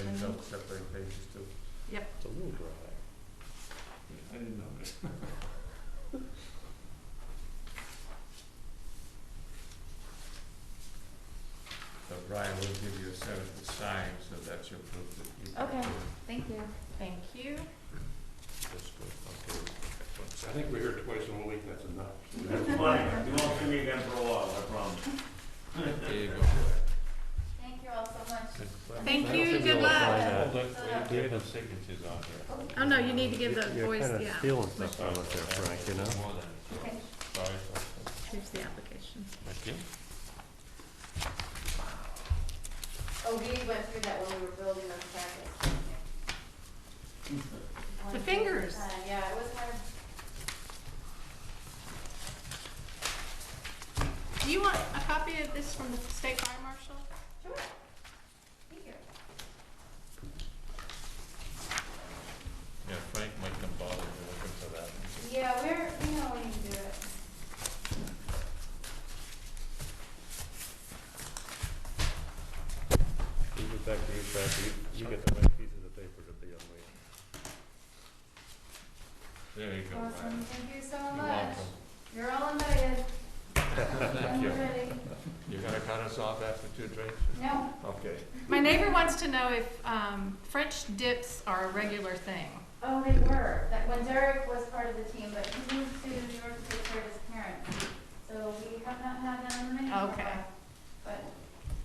separating pages too. It's a little dry. I didn't notice. So Brian will give you a seventh to sign, so that's your proof that you. Okay. Thank you. Thank you. That's good. I think we're here twice in a week, that's enough. That's fine, you won't see me again for a while, I promise. Okay. There you go. Thank you all so much. Thank I don't you, think good we'll luck. find out. Hold it, Yeah. we have the signatures on here. Oh, no, you need to give the You're boys, kind of yeah, stealing stuff out of there, Frank, you know? More than- Okay. Sorry. here's the application. Thank you. Oh, we went through that when we were building those packets. The fingers. Uh, Yeah, it was hard. Do you want a copy of this from the state fire marshal? Sure. Thank you. Yeah, Frank might come bother you looking for that. Yeah, we're, we know we can do it. You get back to you, Frank, you, you get the right piece of the paper to be on me. There you go, Awesome, Brian. thank you so You're much. welcome. You're all invited. Thank I'm you. ready. You're gonna cut us off after two drinks? No, Okay. Mm-hmm. My neighbor wants to know if um, French dips are a regular thing. oh, they were, that when Derek was part of the team, but he moved to New York to take care of his parents. So we have not had them in the menu for a Okay. while. But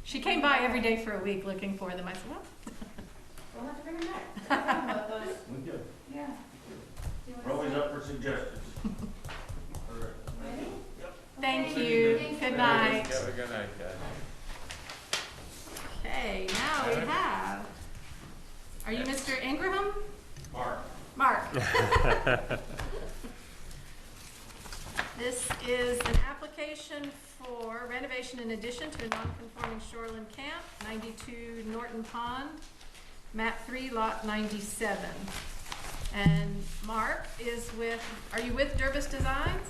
She came by every day for a week looking for them. I said, well, we'll have to bring them back. They're fun about those. We do. Yeah. Do you wanna We're always say- up for suggestions. Ready? thank Okay. you, Thank good you. night. Have a good night, guys. Okay, now we Alright. have, are you Mr. Ingraham? Mark, Mark. This is an application for renovation in addition to a non-conforming shoreline camp, 92 Norton Pond, map 3, lot 97. And Mark is with, are you with Durbus Designs?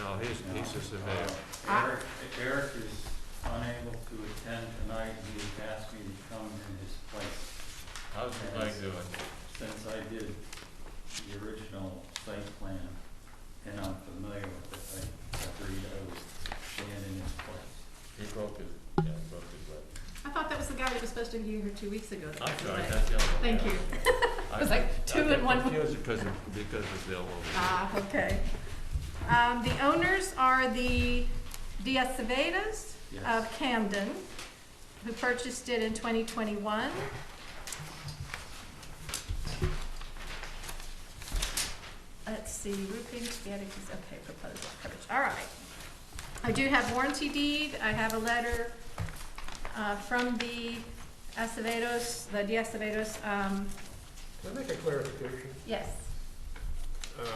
No, he's, he's just a mayor. Ah. Eric, Eric is unable to attend tonight, he has asked me to come in his place, How's your leg doing? since I did the original site plan, and I'm familiar with it, I agreed I would stand in his place. He broke his, yeah, he broke his leg. I thought that was the guy that was supposed to be here two weeks ago. that I'm passed sorry, away. that's the other one. Thank yeah. you. I- It was like two in one. I got confused because of, because of the elbow. Ah, okay. Um, the owners are the Diaz Acevedos Yes. of Camden, who purchased it in twenty twenty-one. Let's see, roofing, spaghetti's, okay, proposed lot coverage, all right. I do have warranty deed, I have a letter, uh, from the Acevedos, the Diaz Acevedos, um, Can I make a clarification? yes, Um,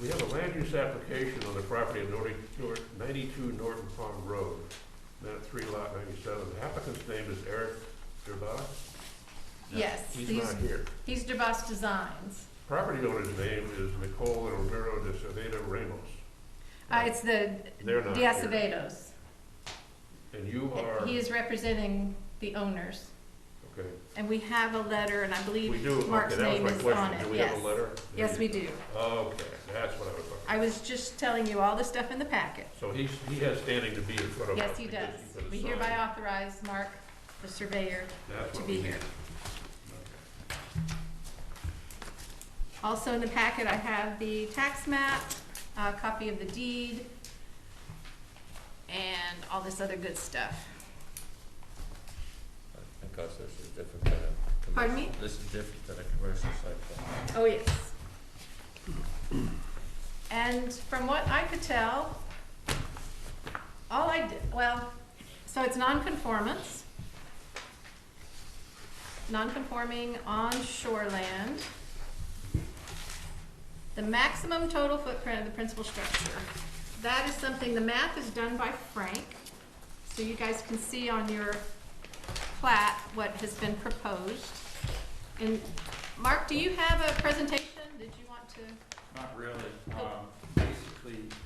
We have a land use application on the property of Norty- Nor- 92 Norton Pond Road, map 3 lot 97. The applicant's name is Eric Durbach. yes. He's these- not here. He's DeBus Designs. Property owner's name is Nicole and Romero de Cerveda Ramos. Uh, it's the They're not here. Diacevedos. And you are, He is representing the owners. okay, And we have a letter, and I we believe do, okay, Mark's that was name my is on question. Do it, we have yes. a letter? Yes, we do. Okay, that's what I was looking. I was just telling you all the stuff in the packet. So he's, he has standing to be in front of us. Yes, he because does. he put a We sign. hereby authorize Mark, the surveyor, That's to what be we here. need. Also in the packet, I have the tax map, a copy of the deed, and all this other good stuff. Because this is different than a. commer- Pardon me? This is different than a commercial site plan. Oh, yes. Oh, And from what I could tell, all I did, well, so it's nonconformance. Nonconforming on shoreland. The maximum total footprint of the principal structure. That is something, the math is done by Frank, so you guys can see on your plat what has been proposed. And Mark, do you have a presentation? Did you want to? Oh. Not really, um, basically,